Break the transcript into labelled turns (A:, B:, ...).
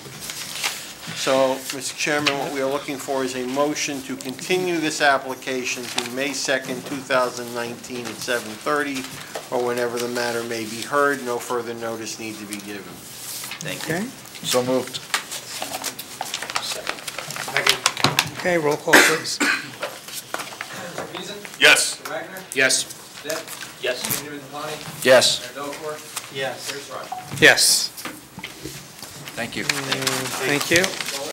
A: So, Mr. Chairman, what we are looking for is a motion to continue this application to May 2nd, 2019 at 7:30, or whenever the matter may be heard. No further notice need to be given.
B: Thank you.
C: Okay,
D: So moved.
C: okay, roll call, please.
E: Yes.
F: Yes.
B: Yes.
D: Yes.
A: Yes.
C: Yes,
D: Thank you.
C: thank you.